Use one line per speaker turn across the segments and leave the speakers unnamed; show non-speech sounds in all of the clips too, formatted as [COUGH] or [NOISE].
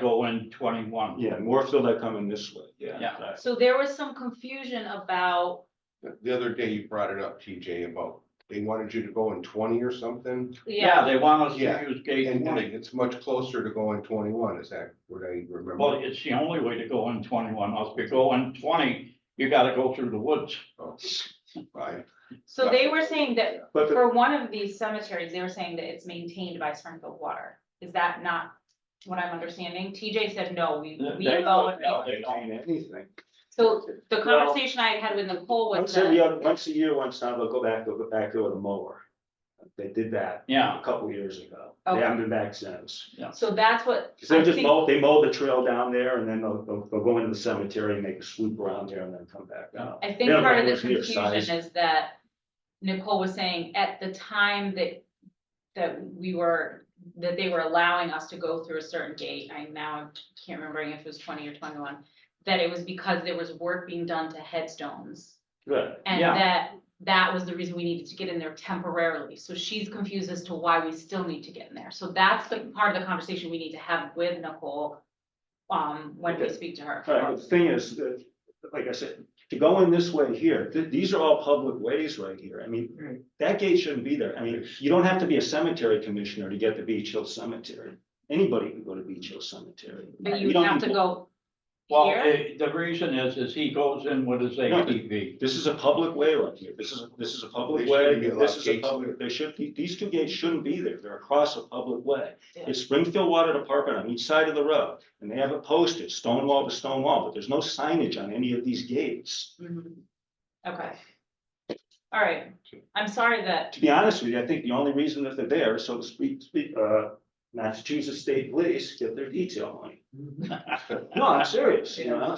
go in twenty-one.
Yeah, more so they're coming this way, yeah.
Yeah.
Right.
So there was some confusion about,
The- The other day you brought it up, TJ, about they wanted you to go in twenty or something,
yeah,
Yeah, they want us to
Yeah.
use gate
and and
twenty,
it's much closer to going twenty-one, is that what I
well,
remember?
it's the only way to go in twenty-one, else if you go in twenty, you gotta go through the woods.
Oh, Right,
so they were saying that
But the-
for one of these cemeteries, they were saying that it's maintained by Springfield Water. Is that not what I'm understanding? TJ said, no, we, we
They-
go. and
no,
we-"
they don't.
Maintain anything.
So the
Well,
conversation I had with Nicole was
Once every
that,
other, once a year, once now, they'll go back, they'll go back to the mower. They did that
Yeah,
a couple years ago.
Okay.
They haven't been back since.
so that's what.
Cause they
I
just
think-
mow, they mow the trail down there and then they'll, they'll, they'll go into the cemetery and make a swoop around there and then come back out.
I think
They're
part of the
nowhere near size.
confusion is that Nicole was saying at the time that, that we were, that they were allowing us to go through a certain gate, I now can't remember if it was twenty or twenty-one, that it was because there was work being done to headstones.
Good.
And
Yeah.
that, that was the reason we needed to get in there temporarily. So she's confused as to why we still need to get in there. So that's the part of the conversation we need to have with Nicole, um, when we
Okay.
speak to her.
All right, but Uh, the thing is, that, like I said, to go in this way here, th- these are all public ways right here. I mean, that gate shouldn't be there. I mean, you don't have to be a cemetery commissioner to get to Beach Hill Cemetery. Anybody can go to Beach Hill Cemetery.
But
We
you
don't
have
need
to go
well,
here.
eh, the reason is, is he goes in with his ATV.
This is a public way right here. This is, this is a public
They shouldn't
way.
be allowed
This is a
gates there.
public, they should, these two gates shouldn't be there. They're across a public way.
Yeah.
It's Springfield Water Department on each side of the road, and they have it posted, stone wall to stone wall, but there's no signage on any of these gates.
Mhm. Okay. All right, I'm sorry that,
To be honest with you, I think the only reason that they're there is so to speak, speak, uh, Massachusetts State Police get their detail money. No, I'm serious, you know?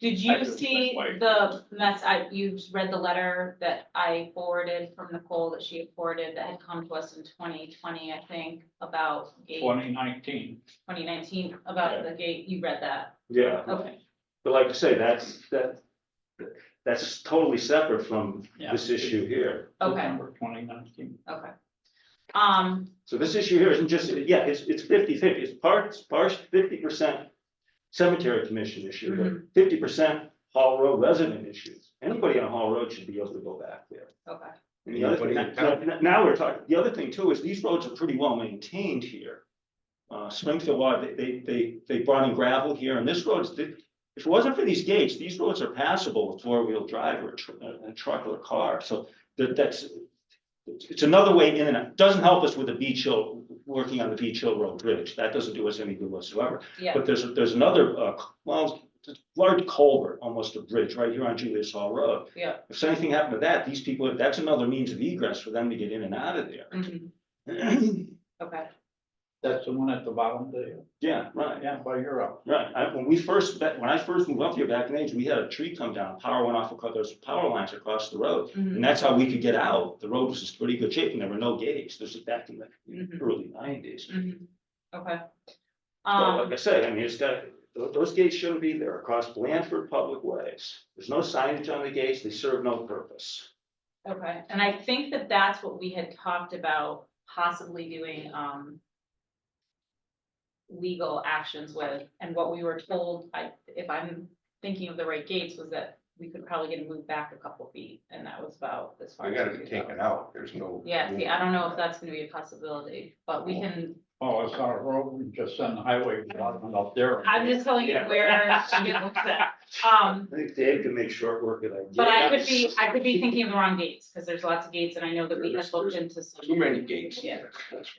did
I
you
just-
see
like-
the mess, I, you read the letter that I forwarded from Nicole that she had forwarded that had come to us in twenty twenty, I think, about gate,
Twenty nineteen,
twenty nineteen, about the gate, you read that,
Yeah.
okay.
But like I say, that's, that, that's totally separate from
Yeah.
this issue here.
Okay.
December twenty nineteen.
Okay. Um,
So this issue here isn't just, yeah, it's, it's fifty fifty, it's part, it's part fifty percent cemetery commission issue, fifty percent Hall Road resident issues. Anybody on Hall Road should be able to go back there.
okay,
And the other thing,
Anybody in
now- now- now we're talking, the other thing too is these roads are pretty well maintained here. Uh, Springfield Water, they, they, they, they brought in gravel here and this road's, the- if it wasn't for these gates, these roads are passable with four-wheel drive or a tr- a truck or a car, so that, that's. It's another way in and out, doesn't help us with the beach hill, working on the beach hill road bridge, that doesn't do us any good whatsoever.
yeah,
But there's, there's another, uh, well, it's a large culvert, almost a bridge, right here on Julius Hall Road
yeah.
if anything happened to that, these people, that's another means of egress for them to get in and out of there. [CLEARS THROAT]
mhm, Okay,
That's the one at the bottom there,
Yeah, right, yeah,
yeah, by Europe.
right. I, when we first, that- when I first moved up here back in the age, we had a tree come down, power went off across, there's power lines across the road.
mhm,
And that's how we could get out. The road was in pretty good shape and there were no gates. This is back in the
Mhm.
early nineties.
mhm, okay.
So uh,
Um,
like I said, I mean, it's got, tho- those gates shouldn't be there across Blandford Public Ways. There's no signage on the gates. They serve no purpose.
Okay, and I think that that's what we had talked about possibly doing, um. Legal actions with, and what we were told, I, if I'm thinking of the right gates, was that we could probably get it moved back a couple feet, and that was about this far.
I
as
gotta
we
be
could
taken
go.
out, there's no.
Yeah, see, I don't know if that's gonna be a possibility, but we can,
Oh, it's our road, we just send the highway department up there.
I'm just telling you
Yeah.
where she looks at.
[LAUGHS]
Um,
I think Dave can make short work of that.
but I could be, I could be thinking of the wrong gates, because there's lots of gates, and I know that we had looked into some.
Too many gates.
Yeah.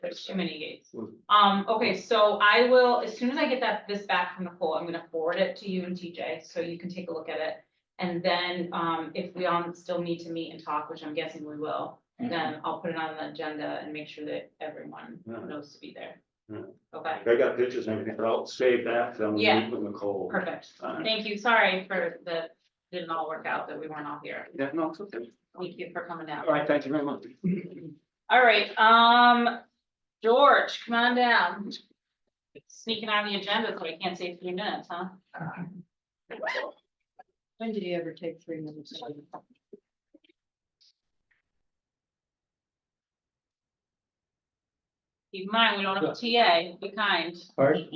There's too many gates.
Hmm.
Mm.
Um, okay, so I will, as soon as I get that, this back from Nicole, I'm gonna forward it to you and TJ, so you can take a look at it. And then, um, if we all still need to meet and talk, which I'm guessing we will,
Hmm.
then I'll put it on the agenda and make sure that everyone
Mm.
knows to be there.
Hmm.
Mm.
Okay,
I got pictures and everything, but I'll save that, so I'm gonna
Yeah.
meet with Nicole.
perfect.
Fine.
Thank you, sorry for the, didn't all work out that we weren't all here.
Yeah, no, it's okay.
Thank you for coming
All
out.
right, thank you very much.
All right, um, George, come on down. Sneaking on the agenda, so I can't say three minutes, huh?
When did he ever take three minutes?
Keep in mind, we don't have a TA, be kind.